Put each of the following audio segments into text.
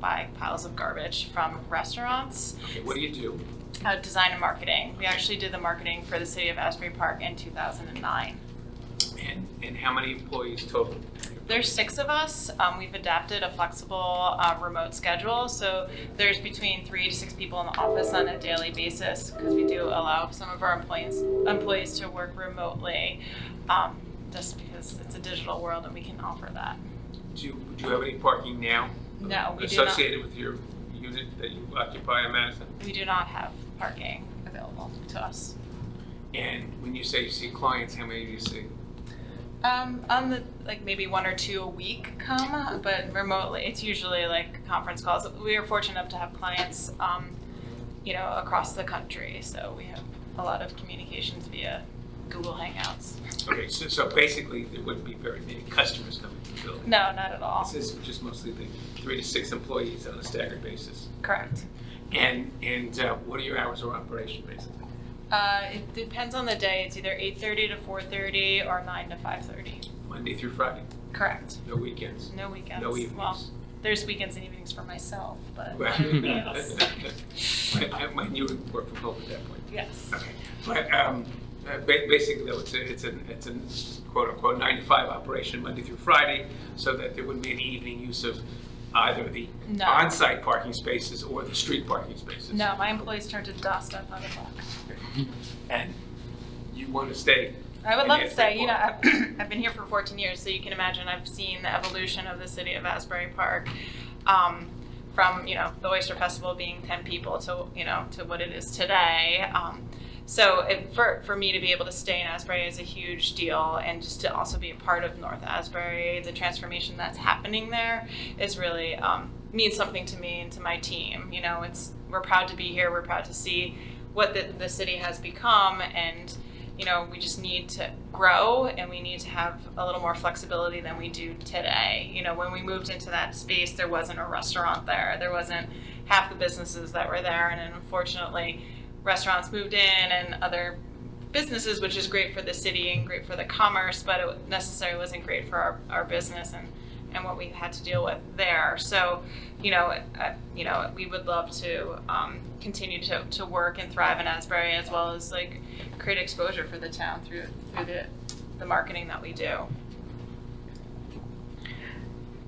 piles of garbage from restaurants. Okay, what do you do? Uh, design and marketing. We actually did the marketing for the city of Asbury Park in 2009. And, and how many employees total? There's six of us. Um, we've adapted a flexible uh, remote schedule, so there's between three to six people in the office on a daily basis because we do allow some of our employees employees to work remotely, um, just because it's a digital world and we can offer that. Do you, do you have any parking now? No, we do not. Associated with your unit that you occupy in Madison? We do not have parking available to us. And when you say you see clients, how many do you see? Um, on the like maybe one or two a week come, but remotely it's usually like conference calls. We are fortunate enough to have clients, um, you know, across the country, so we have a lot of communications via Google Hangouts. Okay, so, so basically, there wouldn't be very many customers coming to the building. No, not at all. This is just mostly the three to six employees on a staggered basis. Correct. And, and uh, what are your hours of operation, basically? Uh, it depends on the day. It's either eight thirty to four thirty or nine to five thirty. Monday through Friday, Correct. no weekends, No weekends. no Well, evenings? there's weekends and evenings for myself, but Well, yes. I- I- When you would work from home at that point. yes. Okay, but um, uh, ba- basically, though, it's a, it's an, it's a quote-unquote nine to five operation, Monday through Friday, so that there wouldn't be any evening use of either the No. on-site parking spaces or the street parking spaces. No, my employees turn to dust at five o'clock. And you want to stay. I would in love to Asbury say, you know, Park. I've, I've been here for 14 years, so you can imagine I've seen the evolution of the city of Asbury Park um, from, you know, the Oyster Festival being 10 people to, you know, to what it is today. Um, so it, for, for me to be able to stay in Asbury is a huge deal, and just to also be a part of North Asbury, the transformation that's happening there is really um, means something to me and to my team. You know, it's we're proud to be here. We're proud to see what the, the city has become, and you know, we just need to grow and we need to have a little more flexibility than we do today. You know, when we moved into that space, there wasn't a restaurant there, there wasn't half the businesses that were there, and unfortunately, restaurants moved in and other businesses, which is great for the city and great for the commerce, but it necessarily wasn't great for our, our business and, and what we had to deal with there. So, you know, uh, you know, we would love to um, continue to, to work and thrive in Asbury as well as like create exposure for the town through through the the marketing that we do.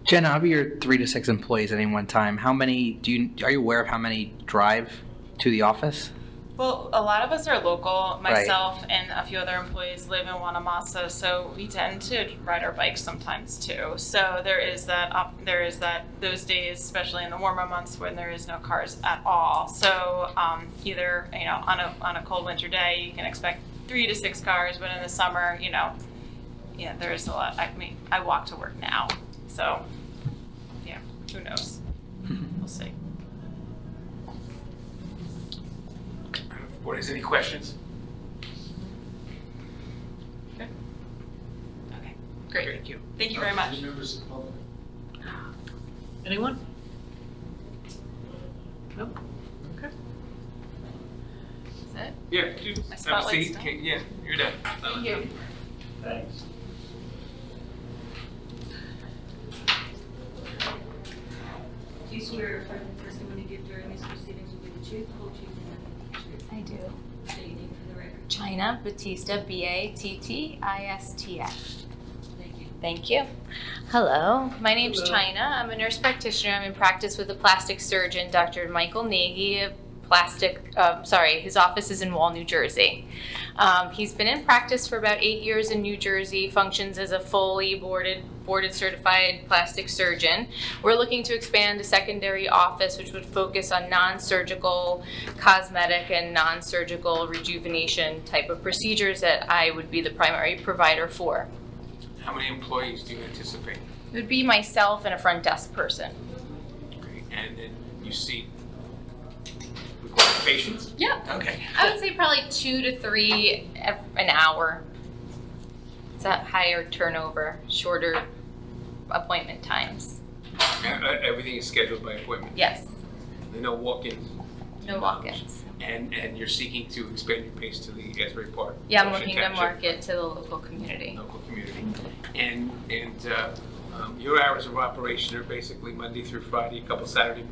Jen, of your three to six employees at any one time, how many do you are you aware of how many drive to the office? Well, a lot of us are local. Right. Myself and a few other employees live in Wanamasa, so we tend to ride our bikes sometimes too. So there is that op- there is that those days, especially in the warmer months when there is no cars at all. So um, either you know on a on a cold winter day, you can expect three to six cars, but in the summer, you know, yeah, there is a lot. I mean, I walk to work now, so yeah, who knows? We'll see. Board, is any questions? Okay, great. Thank you. Thank you very much. Any members of the public? Anyone? Nope. Okay. Is it? Yeah, you, My have a spotlight's seat. done. Okay, yeah, you're done. Thank you. Thanks. Do you swear or affirm the testimony you give during these proceedings will be the truth, whole truth, and nothing but the truth? I do. State your name for the record. China Batista, B A T T I S T A. Thank you. Thank you. Hello, my name's Hello. China. I'm a nurse practitioner. I'm in practice with a plastic surgeon, Dr. Michael Nagy. of Plastic, um, sorry, his office is in Wall, New Jersey. Um, he's been in practice for about eight years in New Jersey. Functions as a fully boarded, boarded certified plastic surgeon. We're looking to expand a secondary office, which would focus on non-surgical, cosmetic, and non-surgical rejuvenation type of procedures that I would be the primary provider for. How many employees do you anticipate? It would be myself and a front desk person. Okay, And then you see required patients? Yep. Okay. I would say probably two to three ev- an hour. It's a higher turnover, shorter appointment times. Uh, uh, Everything is scheduled by appointment. Yes, There are no walk-ins. no walk-ins. And, and you're seeking to expand your base to the Asbury Park. Yeah, I'm Ocean looking to Township market to the local community. Local community. And, and uh, um, your hours of operation are basically Monday through Friday, a couple Saturday